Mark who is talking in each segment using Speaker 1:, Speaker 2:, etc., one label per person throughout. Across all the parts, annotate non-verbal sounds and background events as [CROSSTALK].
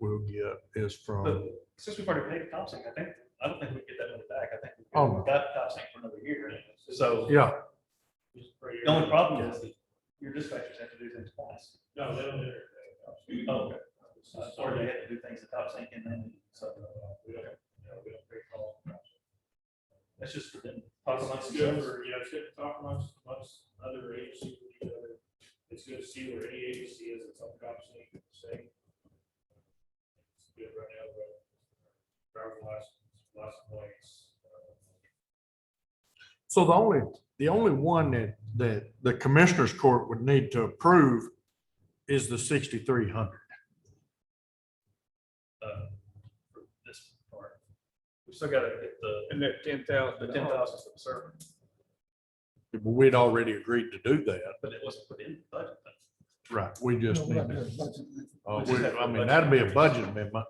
Speaker 1: we'll get is
Speaker 2: But
Speaker 1: from,
Speaker 2: since we've already paid Thompson, I think, I don't think we get that money back. I think
Speaker 1: Oh.
Speaker 2: we've got Thompson for another year. So
Speaker 1: yeah,
Speaker 2: the only problem is that your dispatchers have to do things twice.
Speaker 3: No, they don't do
Speaker 2: Oh, okay. Uh, Or they have to do things at Thompson and then, so. uh, That's just for them. Talk amongst
Speaker 3: It's good
Speaker 2: themselves.
Speaker 3: for, you know, it's good to talk amongst, amongst other agencies, with each other. It's good to see where any agency is, it's all cops and you can say. It's good right now, but driver license, license plates. uh,
Speaker 1: so the only, the only one that, that the commissioners court would need to approve is the sixty-three hundred.
Speaker 2: uh, for this part. We still gotta get the,
Speaker 4: And that ten thousand.
Speaker 2: the ten thousand for the server,
Speaker 1: We'd already agreed to do that.
Speaker 2: but it wasn't put in the budget.
Speaker 1: Right. We just need to. Uh, we- I mean,
Speaker 2: Budget.
Speaker 1: that'd be a budget amendment.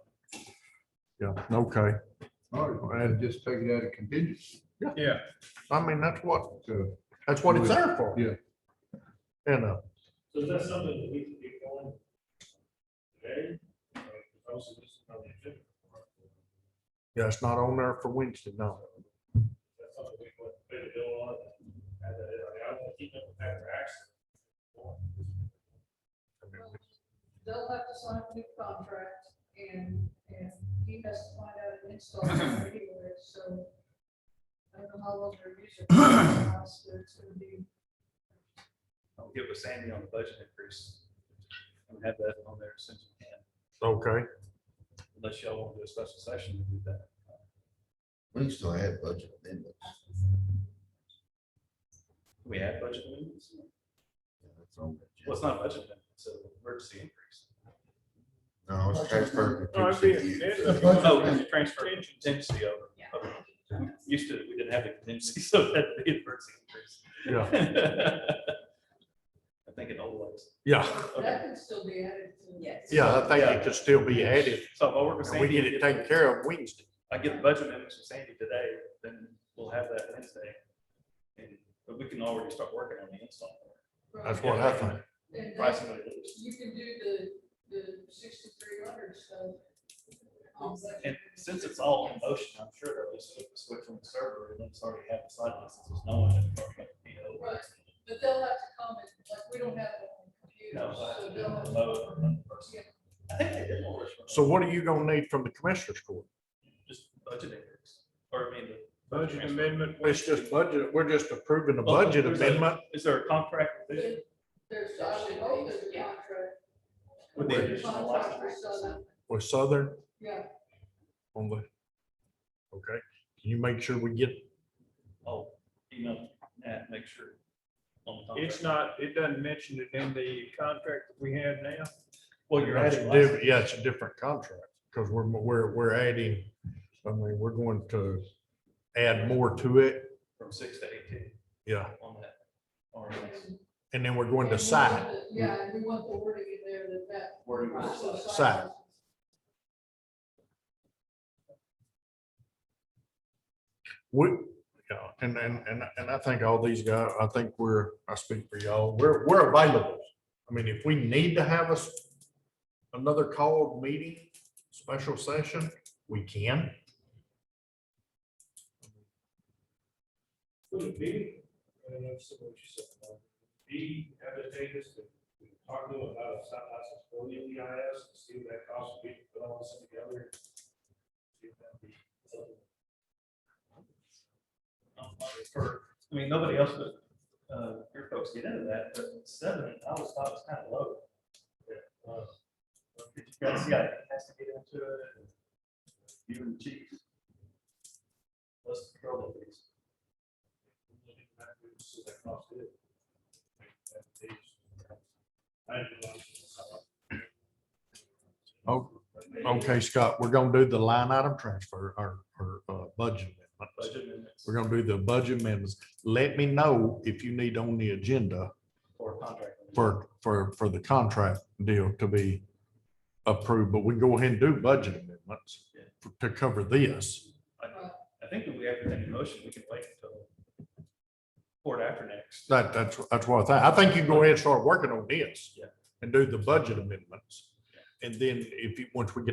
Speaker 1: Yeah, okay.
Speaker 5: All right, I'd just take it out of contingency.
Speaker 4: Yeah,
Speaker 1: I mean, that's what,
Speaker 5: So,
Speaker 1: that's what it's there for.
Speaker 5: Yeah.
Speaker 1: And, uh,
Speaker 3: So is that something that we can get going today? Or is also just on the agenda?
Speaker 1: yeah, it's not on there for Wednesday, no.
Speaker 3: That's something we want to pay the bill on, and that, I mean, I don't wanna keep them from having accidents.
Speaker 6: They'll have to sign a new contract and, and he has to find out an
Speaker 2: [CLEARS THROAT]
Speaker 6: install anywhere, so. I don't know how long they're using. it, but It's gonna be,
Speaker 2: I'll get with Sandy on the budget increase. And have that on there as soon as we can,
Speaker 1: Okay,
Speaker 2: unless y'all want to do a special session to do that.
Speaker 7: We still had budget amendments.
Speaker 2: We had budget amendments,
Speaker 7: Yeah, that's on the
Speaker 2: well,
Speaker 7: agenda.
Speaker 2: it's not a budget amendment, it's an emergency increase.
Speaker 7: No, it's transferred. to
Speaker 4: No, it'd be-
Speaker 7: 268.
Speaker 4: it's a budget.
Speaker 2: Oh, because you transfer contingency over, over, used to, we didn't have a contingency, [LAUGHS] so that'd be an emergency
Speaker 1: yeah,
Speaker 2: increase. [LAUGHS] I think it always.
Speaker 1: yeah,
Speaker 2: Okay.
Speaker 6: that can still be added to.
Speaker 8: Yes.
Speaker 1: yeah, I think it could still be added.
Speaker 2: So if I work with
Speaker 1: And
Speaker 2: Sandy.
Speaker 1: we get it taken care of Wednesday.
Speaker 2: I get the budget amendments from Sandy today, then we'll have that Wednesday. And, but we can already start working on the install.
Speaker 1: That's what I think.
Speaker 6: And
Speaker 2: Price
Speaker 6: then
Speaker 2: and release.
Speaker 6: you can do the, the sixty-three hundred stuff.
Speaker 2: And since it's all in motion, I'm sure they'll just flip the switch on the server and it's already have the side licenses, there's no one. in the department, you know.
Speaker 6: Right. But they'll have to comment, like, we don't have it on
Speaker 2: You know, so
Speaker 6: computers,
Speaker 2: I have to
Speaker 6: so
Speaker 2: do
Speaker 6: they'll have
Speaker 2: it
Speaker 6: to.
Speaker 2: remote or in person.
Speaker 6: Yeah.
Speaker 2: I think they did more.
Speaker 1: So what are you gonna need from the commissioners court?
Speaker 2: Just budget increase, or I mean. the
Speaker 4: budget
Speaker 2: transfer.
Speaker 4: amendment.
Speaker 1: It's just budget, we're just approving the
Speaker 2: Oh,
Speaker 1: budget
Speaker 2: there's a-
Speaker 1: amendment.
Speaker 2: Is there a contract revision
Speaker 6: There's, I would hope there's a oh, contract.
Speaker 2: with the additional
Speaker 6: Contract for
Speaker 2: license?
Speaker 6: Southern,
Speaker 1: with Southern
Speaker 6: Yeah,
Speaker 1: on the, okay, can you make sure we get,
Speaker 2: Oh, you know, Nat, make sure. on the contract.
Speaker 4: It's not, it doesn't mention it in the contract that we have now.
Speaker 2: Well, you're
Speaker 1: That's
Speaker 2: adding.
Speaker 1: a
Speaker 2: license.
Speaker 1: diff- yeah, it's a different contract, because we're, we're, we're adding, I mean, we're going to add more to it,
Speaker 2: from six to eighteen
Speaker 1: yeah,
Speaker 2: on that. RMS.
Speaker 6: and-
Speaker 1: and then we're going to
Speaker 6: and we
Speaker 1: site.
Speaker 6: want the- Yeah, and we want the wording in there that that.
Speaker 2: Wording on the
Speaker 6: So
Speaker 2: site.
Speaker 1: Site. We, yeah, and, and, and, and I think all these guys, I think we're, I speak for y'all, we're, we're available. I mean, if we need to have us another called meeting, special session, we can.
Speaker 3: Would it be, I don't know if someone you said, uh, be advantageous to to talk to them about a site license for the EIS, and see what that cost would be, put all this together. See if that'd be something
Speaker 2: Um, for- I mean, nobody else but, uh, your folks get into that, but seven, I was thought was kind of low. Uh, You gotta see, I has to get into it. and You and the chief. Let's control the things.
Speaker 1: Oh, okay, Scott, we're gonna do the line item transfer, or, or, uh, budget. amendment.
Speaker 2: Budget amendments
Speaker 1: We're gonna do the budget amendments. Let me know if you need on the agenda
Speaker 2: or contract. amendments.
Speaker 1: for, for, for the contract deal to be approved, but we can go ahead and do budget amendments
Speaker 2: Yeah.
Speaker 1: to cover this.
Speaker 2: I think if we have to make a motion, we can wait until court after next.
Speaker 1: That, that's, that's what I think. I think you go ahead and start working on this.
Speaker 2: Yeah.
Speaker 1: And do the budget amendments.
Speaker 2: Yeah.
Speaker 1: And then if you, once we get